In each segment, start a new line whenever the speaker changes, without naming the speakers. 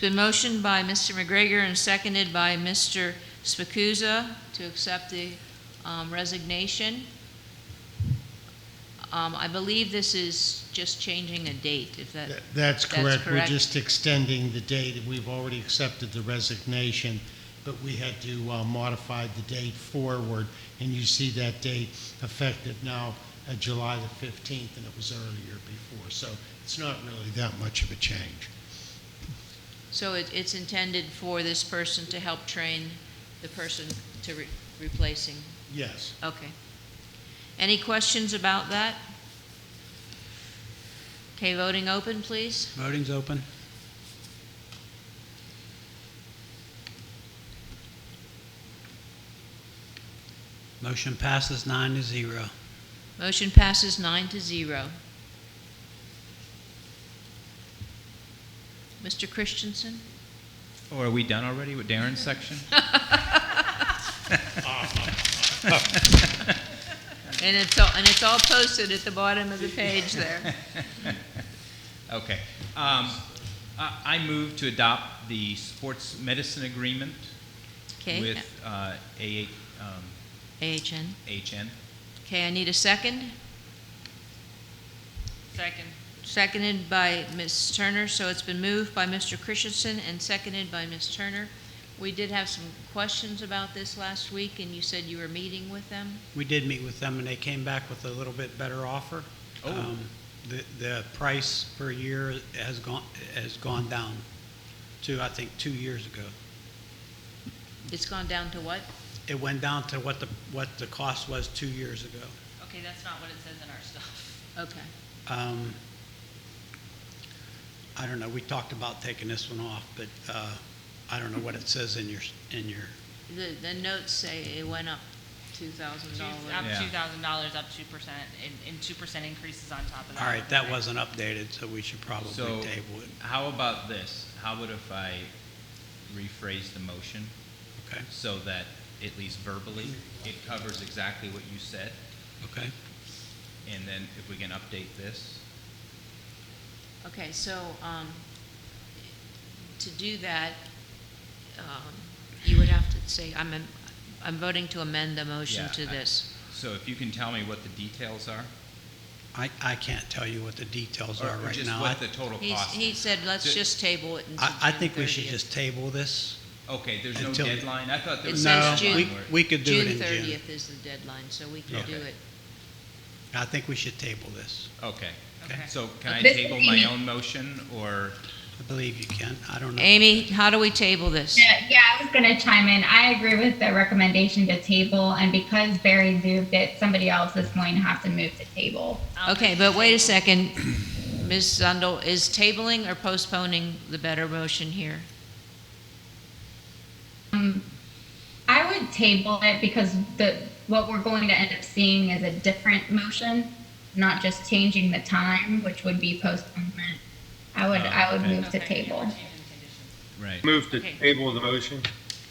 been motioned by Mr. McGregor and seconded by Mr. Spacuzza to accept the um, resignation. Um, I believe this is just changing a date, if that,
That-
That's
That's correct. We're
correct.
just extending the date. We've already accepted the resignation, but we had to uh, modify the date forward, and you see that date effective now, uh, July the 15th, and it was earlier before. So it's not really that much of a change.
so it, it's intended for this person to help train the person to re- replacing.
Yes.
Okay. Any questions about that? Okay, voting open, please.
Voting's open. Motion passes nine to zero.
Motion passes nine to zero. Mr. Christensen?
Oh, are we done already with Darren's section?
And it's all, and it's all posted at the bottom of the page there.
Okay. Um, I, I move to adopt the sports medicine agreement
Okay,
with, uh, A, um,
AHN.
HN.
Okay, I need a second. Second. Seconded by Ms. Turner, so it's been moved by Mr. Christensen and seconded by Ms. Turner. We did have some questions about this last week, and you said you were meeting with them?
We did meet with them, and they came back with a little bit better offer.
Oh.
Um, The, the price per year has gone, has gone down to, I think, two years ago.
It's gone down to what?
It went down to what the, what the cost was two years ago.
Okay, that's not what it says in our stuff.
Okay.
Um, I don't know, we talked about taking this one off, but uh, I don't know what it says in your, in your,
The, the notes say it went up two thousand
Two- Up
dollars.
Yeah.
two thousand dollars, up two percent, and, and two percent increases on top of that.
all right, that wasn't updated, so we should probably
So-
table it.
How about this? How about if I rephrase the motion
Okay,
so that, at least verbally, it covers exactly what you said?
okay.
And then if we can update this?
Okay, so, um, to do that, um, you would have to say, I'm, am- I'm voting to amend the motion
Yeah,
to
I-
this.
So if you can tell me what the details are?
I, I can't tell you what the details
or-
are
or
right
just
now.
what
I,
the total
He's,
cost
he
is?
said, let's
Ju-
just table it until
I I
June
think we should
30th."
just table this.
Okay, there's no
Until-
deadline? I thought there
It
was a
says
No, we,
deadline
June-
where-
we could do it in
June
June.
thirtieth is the deadline, so we can
Okay.
do it.
I think we should table this.
Okay.
Okay.
So can I
This-
table my own motion, or,
I believe you can, I don't know.
Amy, how do we table this?
Yeah, yeah, I was gonna chime in. I agree with the recommendation to table, and because Barry moved it, somebody else is going to have to move to table.
I'll
Okay,
move
but
to
wait a
table.
second. Ms. Zundel, is tabling or postponing the better motion here?
I would table it because the, what we're going to end up seeing is a different motion, not just changing the time, which would be postponement. I would,
Oh,
I would
okay.
move to
Okay, yeah, we're
table.
changing conditions.
right?
Move to
Okay.
table the motion.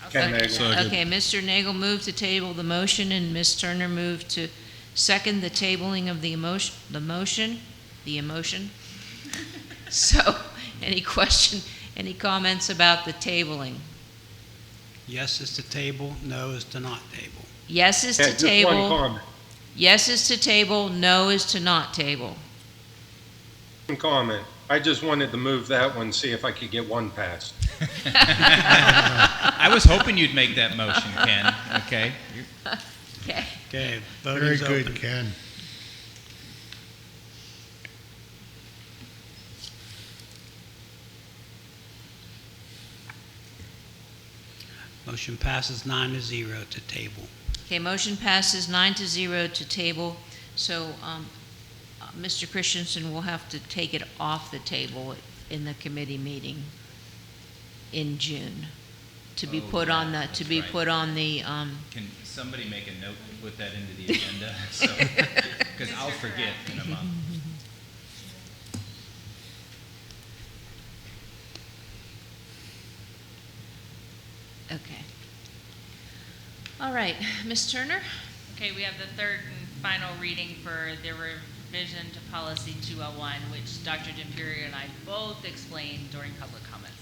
I'll
Ken
second
Nagel.
that.
Okay, Mr. Nagel moved to table the motion, and Ms. Turner moved to second the tabling of the emotion, the motion, the emotion. So, any question, any comments about the tabling?
Yes is to table, no is to not table.
Yes is
Yeah,
to
just one
table,
comment-
yes is to table, no is to not table.
One comment. I just wanted to move that one, see if I could get one passed.
I was hoping you'd make that motion, Ken, okay? You-
Okay,
Okay,
Very
voting's
good,
open.
Ken.
Motion passes nine to zero to table.
okay, motion passes nine to zero to table, so, um, uh, Mr. Christensen will have to take it off the table in the committee meeting in June, to be
Oh,
put on
yeah,
the, to
that's
be
right.
put on the, um,
Can somebody make a note and put that into the agenda? Because I'll forget in a month.
okay. All right, Ms. Turner?
Okay, we have the third and final reading for the revision to policy two oh one, which Dr. Jim Period and I both explained during public comment.